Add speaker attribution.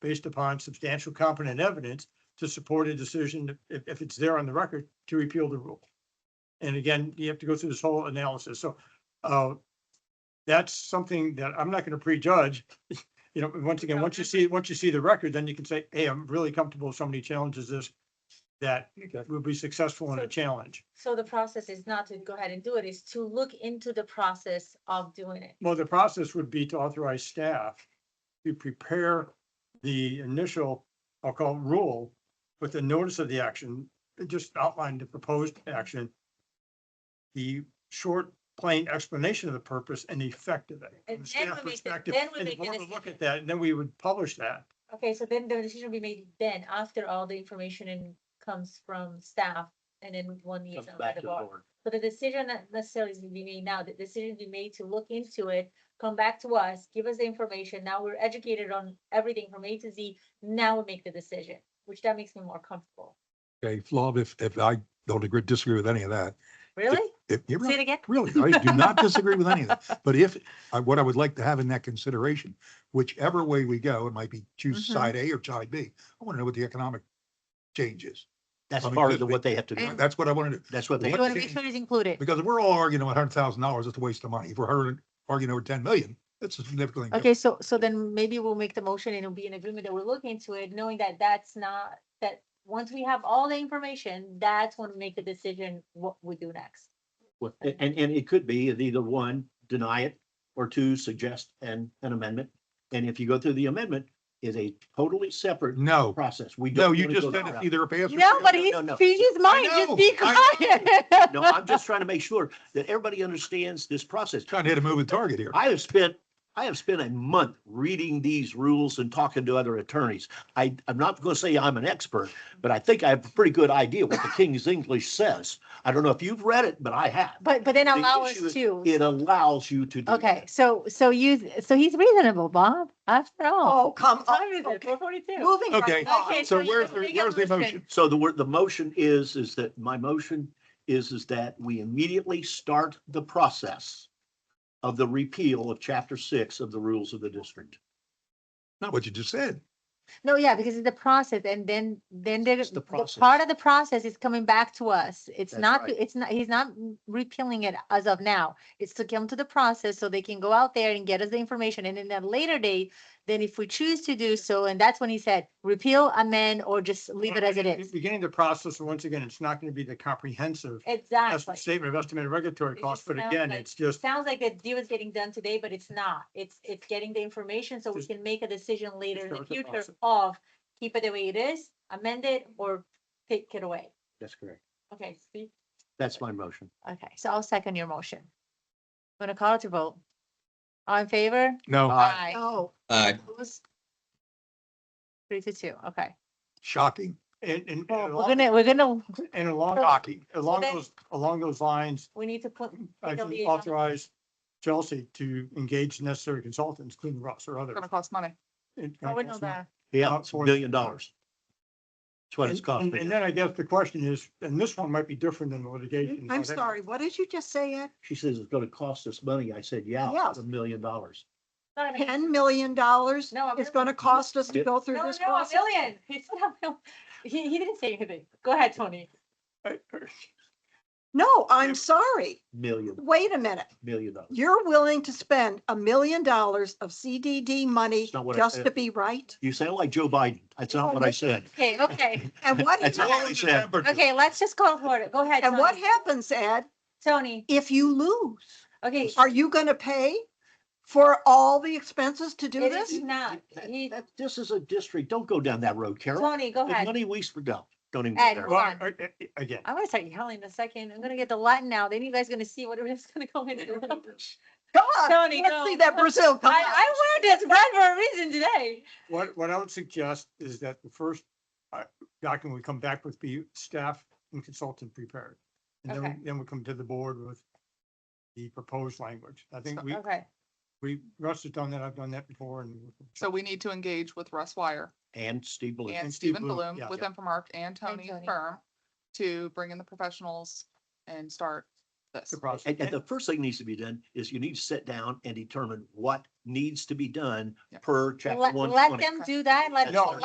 Speaker 1: based upon substantial competent evidence to support a decision, if, if it's there on the record, to repeal the rule. And again, you have to go through this whole analysis. So, uh, that's something that I'm not going to prejudge. You know, once again,
Speaker 2: No,
Speaker 1: once you
Speaker 2: that's-
Speaker 1: see, once you see the record, then you can say, hey, I'm really comfortable if somebody challenges this, that we'll be successful in a
Speaker 2: So-
Speaker 1: challenge.
Speaker 2: So the process is not to go ahead and do it, is to look into the process of doing it.
Speaker 1: Well, the process would be to authorize staff to prepare the initial, I'll call it rule, with the notice of the action, it just outline the proposed action, the short, plain explanation of the purpose and the effect of it.
Speaker 2: And
Speaker 1: from the
Speaker 2: then
Speaker 1: staff
Speaker 2: we make the-
Speaker 1: perspective,
Speaker 2: then we
Speaker 1: and the
Speaker 2: make the
Speaker 1: board would Look
Speaker 2: decision.
Speaker 1: at that, and then we would publish that.
Speaker 2: Okay, so then the decision will be made then, after all the information and comes from staff, and then one needs
Speaker 3: Comes
Speaker 2: to
Speaker 3: back
Speaker 2: let the
Speaker 3: to the
Speaker 2: board.
Speaker 3: board.
Speaker 2: So the decision not necessarily is to be made now, the decision be made to look into it, come back to us, give us the information, now we're educated on everything from A to Z, now we make the decision, which that makes me more comfortable.
Speaker 4: Okay, Flav, if, if I don't agree, disagree with any of that,
Speaker 2: Really?
Speaker 4: if, you're
Speaker 2: Say it
Speaker 4: right,
Speaker 2: again?
Speaker 4: really, I do not disagree with any of that. But if, I- what I would like to have in that consideration, whichever way we go, it might be choose
Speaker 2: Mhm.
Speaker 4: side A or side B. I want to know what the economic change is.
Speaker 3: That's
Speaker 4: I mean,
Speaker 3: part
Speaker 4: because
Speaker 3: of the-
Speaker 4: we-
Speaker 3: what they have to do.
Speaker 2: And-
Speaker 4: That's what I want to do.
Speaker 3: That's what they,
Speaker 4: You wanna make
Speaker 3: Right.
Speaker 4: sure
Speaker 2: it's included.
Speaker 4: Because if we're all arguing about hundred thousand dollars, it's a waste of money. If we're hurting- arguing over ten million, that's a significantly.
Speaker 2: Okay, so, so then maybe we'll make the motion and it'll be an agreement that we're looking into it, knowing that that's not, that once we have all the information, that's when we make the decision what we do next.
Speaker 3: what- and, and it could be either one, deny it, or two, suggest an, an amendment. And if you go through the amendment, is a totally separate
Speaker 4: No,
Speaker 3: process. We don't.
Speaker 4: no, you
Speaker 3: wanna
Speaker 4: just
Speaker 3: go
Speaker 4: said
Speaker 3: that
Speaker 4: it's
Speaker 3: route.
Speaker 4: either a pass. or
Speaker 2: No,
Speaker 4: fail.
Speaker 2: but
Speaker 3: no,
Speaker 2: he's,
Speaker 3: no.
Speaker 2: he's mine,
Speaker 4: know,
Speaker 2: just be
Speaker 4: I
Speaker 2: quiet.
Speaker 3: No, I'm just trying to make sure that everybody understands this process.
Speaker 4: Trying to hit a moving target here.
Speaker 3: I have spent, I have spent a month reading these rules and talking to other attorneys. I, I'm not going to say I'm an expert, but I think I have a pretty good idea what the King's English says. I don't know if you've read it, but I have.
Speaker 2: But, but then
Speaker 3: The
Speaker 2: allow us
Speaker 3: issue is
Speaker 2: to.
Speaker 3: It allows you to. do
Speaker 2: Okay,
Speaker 3: that.
Speaker 2: so, so you, so he's reasonable, Bob, after all.
Speaker 5: Oh, come on.
Speaker 2: Time is it? Four forty-two.
Speaker 5: Moving
Speaker 4: Okay,
Speaker 5: right on.
Speaker 4: so where's, the- where's the motion?
Speaker 3: So the word, the motion is, is that my motion is, is that we immediately start the process of the repeal of chapter six of the rules of the district.
Speaker 4: Not what you just said.
Speaker 2: No, yeah, because it's the process and then, then there,
Speaker 3: It's the
Speaker 2: the
Speaker 3: process.
Speaker 2: part of the process is coming back to us. It's
Speaker 3: That's
Speaker 2: not,
Speaker 3: right.
Speaker 2: it's not, he's not repealing it as of now. It's to come to the process so they can go out there and get us the information. And in a later date, then if we choose to do so, and that's when he said repeal, amend, or just leave it as it is.
Speaker 1: Beginning the process, and once again, it's not going to be the comprehensive est-
Speaker 2: Exactly.
Speaker 1: statement of estimated regulatory
Speaker 2: It
Speaker 1: costs,
Speaker 2: just
Speaker 1: but
Speaker 2: sounds
Speaker 1: again,
Speaker 2: like-
Speaker 1: it's just,
Speaker 2: Sounds like the deal is getting done today, but it's not. It's, it's getting the information so we
Speaker 1: Just-
Speaker 2: can make a decision later in the
Speaker 1: start the
Speaker 2: future
Speaker 1: process.
Speaker 2: of keep it the way it is, amend it, or take it away.
Speaker 3: That's correct.
Speaker 2: Okay, speak.
Speaker 3: That's my motion.
Speaker 2: Okay, so I'll second your motion. I'm gonna call it to vote. All in favor?
Speaker 4: No,
Speaker 3: Aye.
Speaker 5: No,
Speaker 6: Aye.
Speaker 5: opposed?
Speaker 2: Three to two, okay.
Speaker 4: shocking,
Speaker 1: and, and.
Speaker 2: Well, We're gonna, we're gonna,
Speaker 1: And along,
Speaker 4: shocking.
Speaker 1: along
Speaker 2: then-
Speaker 1: those, along those lines,
Speaker 2: we need to put,
Speaker 1: I
Speaker 2: Take a
Speaker 1: can
Speaker 2: lead on-
Speaker 1: authorize Chelsea to engage necessary consultants, including Russ or
Speaker 5: It's
Speaker 1: others.
Speaker 5: gonna cost money.
Speaker 1: And-
Speaker 5: Oh, we know that.
Speaker 3: Yeah,
Speaker 1: Not
Speaker 3: it's a
Speaker 1: for-
Speaker 3: million dollars. That's what it's
Speaker 1: And,
Speaker 3: costing.
Speaker 1: and- and then I guess the question is, and this one might be different than litigation.
Speaker 5: I'm sorry, what did you just say, Ed?
Speaker 3: She says it's gonna cost us money. I said, yeah,
Speaker 5: Yes.
Speaker 3: it's a million dollars.
Speaker 2: not a-
Speaker 5: Ten million dollars
Speaker 2: No, a
Speaker 5: is
Speaker 2: million.
Speaker 5: gonna cost us to go through
Speaker 2: no,
Speaker 5: this
Speaker 2: no, a
Speaker 5: process?
Speaker 2: million. He said a mil- He, he didn't say anything. Go ahead, Tony.
Speaker 5: No, I'm sorry.
Speaker 3: Million,
Speaker 5: Wait a minute.
Speaker 3: million dollars.
Speaker 5: You're willing to spend a million dollars of CDD money
Speaker 3: It's not what I
Speaker 5: just
Speaker 3: said.
Speaker 5: to be right?
Speaker 3: You sound like Joe Biden. That's not what I said.
Speaker 2: Okay, okay,
Speaker 5: And what,
Speaker 3: That's
Speaker 5: hap-
Speaker 3: all I said.
Speaker 2: okay, let's just go for it. Go ahead.
Speaker 5: and what
Speaker 2: Tony.
Speaker 5: happens, Ed,
Speaker 2: Tony,
Speaker 5: if you lose?
Speaker 2: okay.
Speaker 5: Are you gonna pay for all the expenses to do
Speaker 2: It is
Speaker 5: this?
Speaker 2: not,
Speaker 3: That-
Speaker 2: he,
Speaker 3: that- This is a district. Don't go down that road, Carol.
Speaker 2: Tony, go
Speaker 3: The
Speaker 2: ahead.
Speaker 3: money we spent, no, don't even.
Speaker 2: Ed,
Speaker 3: go there.
Speaker 2: hold on.
Speaker 1: Again,
Speaker 2: I'm gonna start yelling in a second. I'm gonna get the Latin out. Then you guys gonna see what it is gonna go into.
Speaker 5: Come on,
Speaker 2: Tony,
Speaker 5: let's
Speaker 2: no.
Speaker 5: see that Brazil. Come
Speaker 2: I,
Speaker 5: on.
Speaker 2: I wear this red for a reason today.
Speaker 1: what, what I would suggest is that the first uh, document we come back with be staff and consultant prepared. And then,
Speaker 2: Okay.
Speaker 1: we- then we come to the board with the proposed language. I think we,
Speaker 2: Okay,
Speaker 1: we, Russ has done that, I've done that before and.
Speaker 7: So we need to engage with Russ Wire
Speaker 3: And Steve Blue.
Speaker 7: and
Speaker 1: And Steve
Speaker 7: Stephen
Speaker 1: Bloom,
Speaker 7: Bloom
Speaker 1: yeah.
Speaker 7: with Infomark and
Speaker 2: And
Speaker 7: Tony
Speaker 2: Tony.
Speaker 7: Firm to bring in the professionals and start this.
Speaker 1: the process.
Speaker 3: And, and the first thing needs to be done is you need to sit down and determine what needs to be done
Speaker 7: Yeah.
Speaker 3: per chapter
Speaker 2: Let,
Speaker 3: one
Speaker 2: let
Speaker 3: twenty.
Speaker 2: them do that, let
Speaker 3: No,